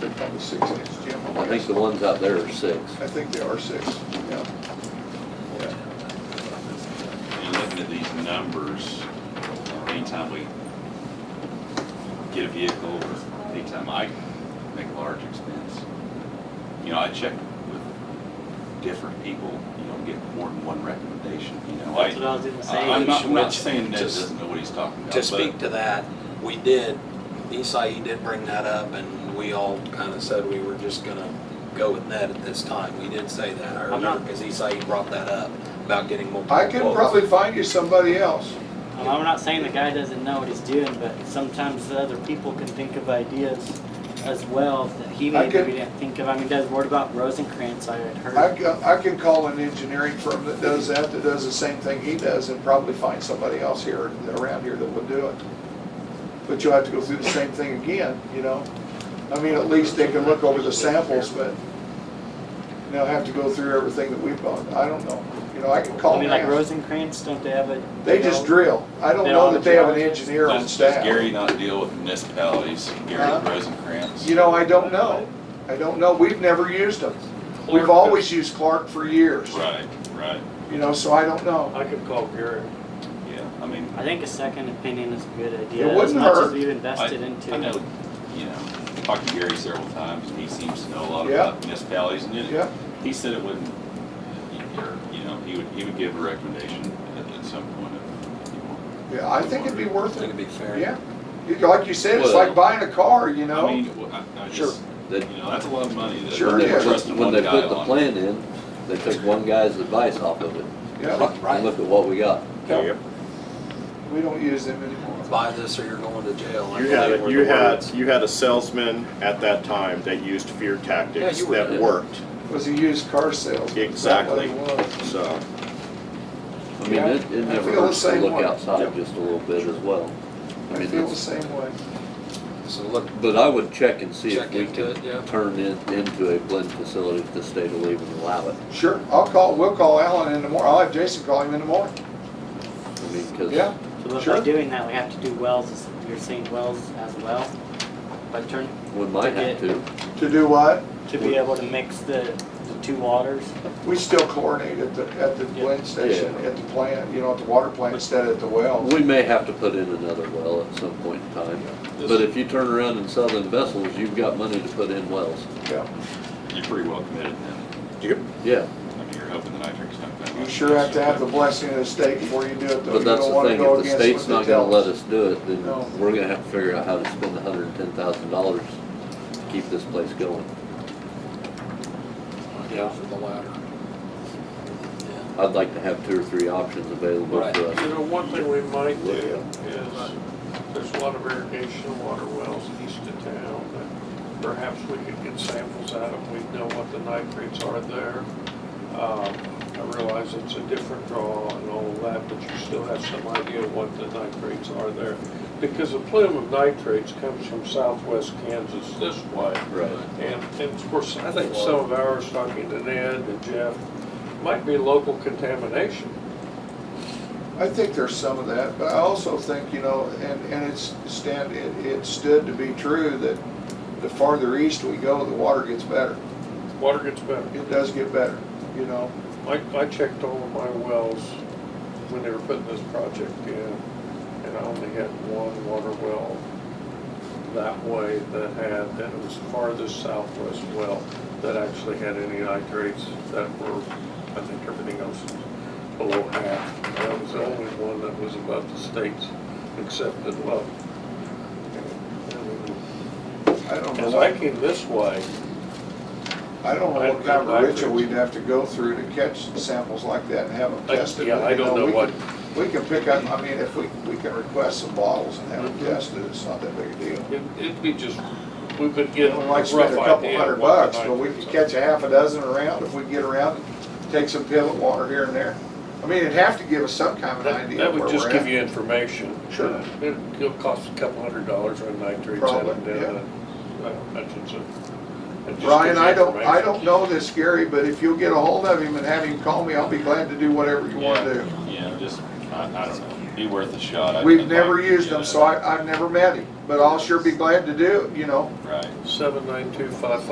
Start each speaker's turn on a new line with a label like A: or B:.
A: That was six inch, Jim.
B: I think the ones out there are six.
A: I think they are six, yeah. Yeah.
C: And looking at these numbers, anytime we get a vehicle, or anytime I make a large expense, you know, I check with different people, you know, get more than one recommendation, you know.
D: That's what I was gonna say.
C: I'm not, I'm not
E: Which-
C: saying Ned
E: just-
C: doesn't know what he's talking about,
E: To
C: but.
E: speak to that, we did, Isai did bring that up, and we all kind of said we were just gonna go with Ned at this time. We did say that, I
D: I'm not-
E: remember, because Isai brought that up about getting multiple
A: I can
E: quotes.
A: probably find you somebody else.
D: Um, I'm not saying the guy doesn't know what he's doing, but sometimes the other people can think of ideas as well that he
A: I
D: maybe
A: could-
D: didn't think of. I mean, does, what about Rosencrantz I had
A: I,
D: heard?
A: ca- I can call an engineering firm that does that, that does the same thing he does, and probably find somebody else here, around here that would do it. But you'll have to go through the same thing again, you know? I mean, at least they can look over the samples, but they'll have to go through everything that we've done. I don't know. You know, I can call
D: I
A: and
D: mean, like
A: ask.
D: Rosencrantz, don't they have a?
A: They just
D: drill.
A: drill. I don't
D: They're
A: know
D: all
A: that they have an
D: geologists?
A: engineer on
C: Does- does
A: staff.
C: Gary not deal with municipalities, Gary
A: Huh?
C: Rosencrantz?
A: You know, I don't know. I don't know. We've never used them. We've always used Clark for years,
C: Right, right,
A: you know, so I don't know.
F: I could call Garrett.
C: yeah, I mean.
D: I think a second opinion is a good idea.
A: It wouldn't
D: As much
A: hurt.
D: as we've
C: I-
D: invested into
C: I know,
D: it.
C: you know, talked to Gary several times, and he seems to know a lot
A: Yeah.
C: about municipalities, and
A: Yeah.
C: it- he said it wouldn't, or, you know, he would, he would give a recommendation at, at some point if you want.
A: Yeah, I think it'd be
E: I
A: worth
E: think
A: it.
E: it'd be fair.
A: Yeah. You- Like you said, it's like buying a car, you
C: I
A: know?
C: mean, w- I, I
E: Sure.
C: just,
B: That-
C: you know, that's a lot of money that
A: Sure
B: When they
A: it
C: we're
A: is.
B: put-
C: trusting
B: when
C: one
B: they
C: guy
B: put the
C: on.
B: plan in, they took one guy's advice off of it.
A: Yeah,
B: And look at what we got.
E: There
F: you
A: we don't use them anymore.
E: Buy this or you're going to jail. I
F: You had,
E: believe
F: a-
E: were
F: you
E: the
F: had,
E: words.
F: you had a salesman at that time that used fear
E: Yeah,
F: tactics
E: you were
F: that
B: there.
F: worked,
A: Was a used car sales.
F: Exactly.
A: That's what it was.
F: so.
B: I mean, it, it
A: Yeah, I feel
B: never
A: the
B: hurts to
A: same
B: look
A: way.
B: outside just a little bit as well. I
A: I
B: mean,
A: feel the
B: it's,
A: same way.
E: So look,
B: but I would check and see if
E: Check
B: we
E: into
B: could
E: it, yeah.
B: turn it into a blend facility if the state will even allow it.
A: Sure, I'll call, we'll call Alan in the morning. I'll have Jason call him in the morning.
B: I mean, cause.
A: Yeah,
D: So
A: Sure.
D: by doing that, we have to do wells, as- you're saying wells as well? By turn,
B: We might have to.
A: to do what?
D: to be able to mix the, the two waters?
A: We still chlorinate at the, at the blend station, at the plant, you know, at the water plant instead of at the well.
B: We may have to put in another well at some point in time. But if you turn around and sell them vessels, you've got money to put in wells.
A: Yeah.
C: You're pretty well committed then,
B: Yeah,
C: I mean, you're hoping the nitric's not that
A: You
C: much.
A: sure have to have the blessing of the state before you do it, though.
B: but
A: You
B: that's
A: don't
B: the
A: wanna
B: thing,
A: go
B: if the
A: against
B: state's
A: what
B: not
A: they
B: gonna
A: tell us.
B: let us do it, then
A: No.
B: we're gonna have to figure out how to spend hundred and ten thousand dollars to keep this place going.
E: I'd
B: Yeah.
E: go for the latter. Yeah.
B: I'd like to have two or three options available
E: Right.
B: for us.
G: You know, one thing we might do is, there's a lot of irrigation water wells east of town that perhaps we could get samples out of, we know what the nitrates are there. Um, I realize it's a different draw and all of that, but you still have some idea what the nitrates are there. Because the plume of nitrates comes from southwest Kansas this way.
B: Right.
G: And, and of course,
E: I think-
G: some of ours, talking to Ned and Jeff, might be local contamination.
A: I think there's some of that, but I also think, you know, and, and it's stand, it, it stood to be true that the farther east we go, the water gets better.
G: Water gets better.
A: It does get better, you know?
G: I, I checked all of my wells when they were putting this project in, and I only had one water well that way that had, that was farthest southwest well that actually had any nitrates that were, I think everything else was below half. And That was the only one that was above the state's accepted level.
A: I don't
G: As
A: know,
G: I
A: I
G: came this way,
A: don't know what
G: I-
A: kind of
G: I-
A: ritual we'd have to go through to catch samples like that and have them
G: I-
A: tested.
G: yeah, I
A: You
G: don't know
A: we
G: what-
A: can- We can pick up, I mean, if we, we can request some bottles and have
G: Mm-hmm.
A: them tested, it's not that big a deal.
G: it- it'd be just, we would
A: We
G: get a
A: might
G: rough
A: spend a couple
G: idea
A: hundred
G: of what the
A: bucks, but we
G: nitrates
A: could
G: are.
A: catch a half a dozen around if we get around and take some pivot water here and there. I mean, it'd have to give us some kind of an
G: That
A: idea
G: that
A: of where
G: would just
A: we're
G: give
A: at.
G: you information.
A: Sure.
G: Uh, it- It'll cost a couple hundred dollars on nitrates
A: Probably,
G: and,
A: yeah.
G: uh, I don't imagine so. It just
A: Brian,
G: gives you
A: I don't, I
G: information.
A: don't know this Gary, but if you'll get a hold of him and have him call me, I'll be glad to do whatever you wanna do.
C: Yeah, just, I, I don't know. be worth a shot. I'd-
A: We've
C: I'd
A: never
C: like to
A: used
C: get
A: them,
C: it.
A: so I, I've never met him, but I'll sure be glad to do, it, you know?
C: Right.
G: Seven nine two five